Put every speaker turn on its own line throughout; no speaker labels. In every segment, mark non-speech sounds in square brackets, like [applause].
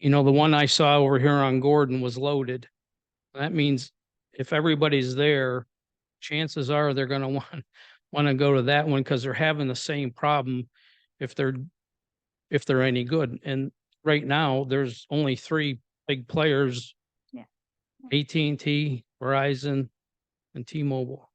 you know, the one I saw over here on Gordon was loaded. That means if everybody's there, chances are they're gonna [laughs] want, wanna go to that one because they're having the same problem if they're, if they're any good. And right now, there's only three big players.
Yeah.
AT&T, Verizon, and T-Mobile.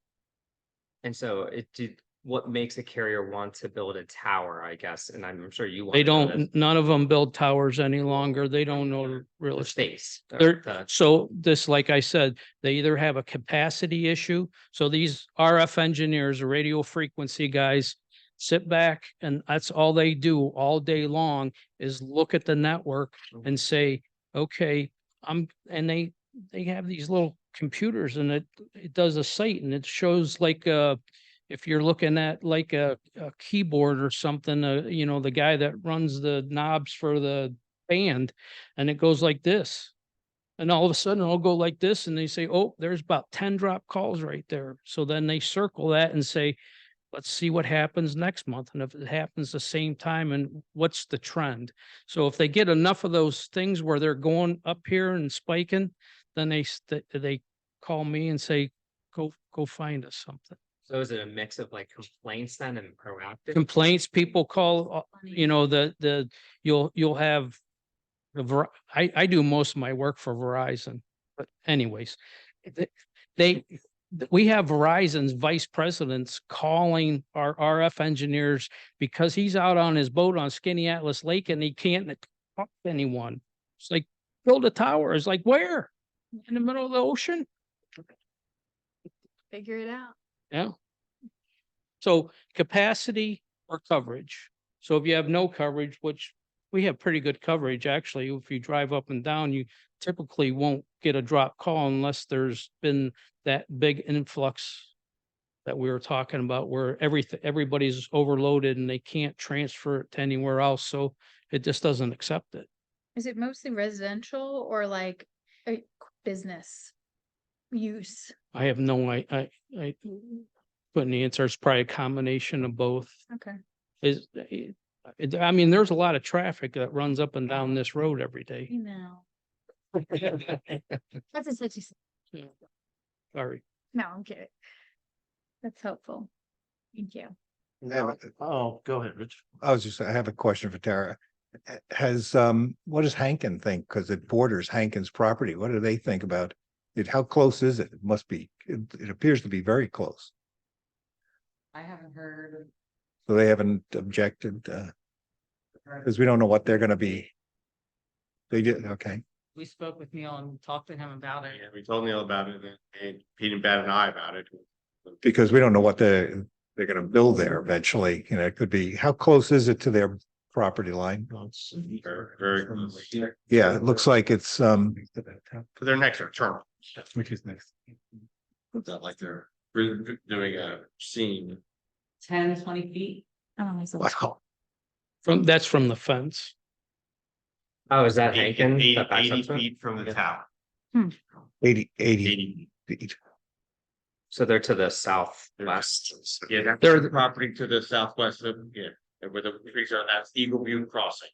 And so it did, what makes a carrier want to build a tower, I guess, and I'm sure you.
They
wanna know this,
don't, none of them build towers any longer. They don't know real
The
estate.
space. or
They're-
the-
Uh, So this, like I said, they either have a capacity issue. So these RF engineers, radio frequency guys sit back and that's all they do all day long is look at the network and say, okay, I'm, and they, they have these little computers and it, it does a site and it shows like, uh, if you're looking at like a, a keyboard or something, uh, you know, the guy that runs the knobs for the band and it goes like this. And all of a sudden it'll go like this and they say, oh, there's about ten drop calls right there. So then they circle that and say, let's see what happens next month. And if it happens the same time and what's the trend? So if they get enough of those things where they're going up here and spiking, then they, st- they call me and say, go, go find us something.
So is it a mix of like complaints then and proactive?
Complaints, people call, uh, you know, the, the, you'll, you'll have the, Ver- I, I do most of my work for Verizon, but anyways, th- they, th- we have Verizon's vice presidents calling our RF engineers because he's out on his boat on Skinny Atlas Lake and he can't talk to anyone. It's like, build a tower. It's like, where? In the middle of the ocean?
Figure it out.
Yeah. So capacity or coverage. So if you have no coverage, which we have pretty good coverage, actually, if you drive up and down, you typically won't get a drop call unless there's been that big influx that we were talking about where everything, everybody's overloaded and they can't transfer it to anywhere else. So it just doesn't accept it.
Is it mostly residential or like uh, business use?
I have no, I, I, I couldn't answer. It's probably a combination of both.
Okay.
is, it- it- I mean, there's a lot of traffic that runs up and down this road every day.
[laughs] You know,
Well,
that's a such
Sorry.
No, I'm kidding. That's helpful. Thank you.
I have a-
Oh, go ahead, Rich.
I was just, I have a question for Tara. H- Has, um, what does Hankin think? Because it borders Hankin's property. What do they think about it? How close is it? It must be, it, it appears to be very close.
I haven't heard.
So they haven't objected, uh, because we don't know what they're gonna be. They did, okay.
We spoke with Neil and talked to him about it.
Yeah, we told Neil about it and- and he didn't bat an eye about it.
Because we don't know what the, they're gonna build there eventually. You know, it could be, how close is it to their property line?
Very, very closely.
Yeah, it looks like it's, um,
For their next term. Which is next. It's not like they're re- doing a scene.
Ten, twenty feet?
wow.
From, that's from the fence.
Oh, is that
Eight-
Hankin?
eight-
that backs up
Eighty
to it?
feet from the
Yeah.
tower.
eighty, eighty
Eighty.
feet.
So they're to the southwest.
Yeah, that's
They're-
the property to the southwest of, yeah, where the trees are, that's Eagle View Crossing.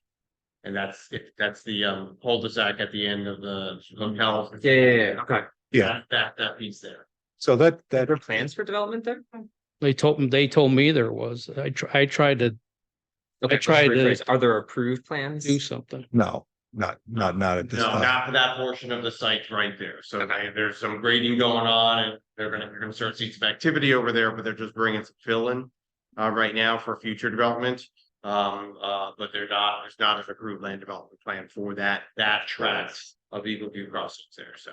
And that's, it- that's the um cul-de-sac at the end of the hotel.
Yeah, yeah, yeah, okay.
Yeah.
That- That, that piece there.
So that,
Are
that.
there plans for development there?
They told, me. they told me there was. I, tr- I tried to
Okay, let's
tried to-
rephrase. Are there approved plans?
do something.
No, not, not, not at this
No,
time.
not for that portion of the site right there. So they- there's some grading going on and they're gonna, you're gonna start seeing some activity over there, but they're just bringing some fill in. Uh, right now for future development. Um, uh, but they're not, there's not an approved land development plan for that, that tract of Eagle View Crossings there, so.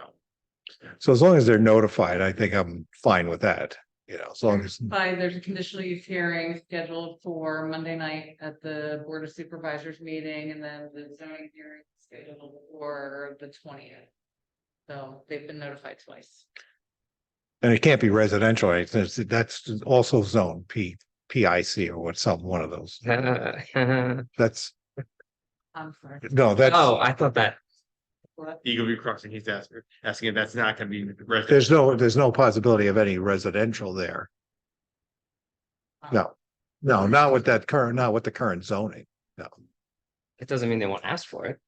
So as long as they're notified, I think I'm fine with that, you know, as
Mm.
long as,
Five, there's a conditional use hearing scheduled for Monday night at the Board of Supervisors meeting and then the zoning hearing scheduled for the twentieth. So they've been notified twice.
and it can't be residential, right? That's, that's also zone P, PIC or what, some, one of those.
[laughs] Oh,
That's,
I'm sorry.
no, that's,
I thought that.
Eagle View Crossing, he's asking, asking if that's not gonna be. residential.
there's no, there's no possibility of any residential there. No,
Mm.
no, not with that current, not with the current zoning.
It doesn't mean they won't ask for it.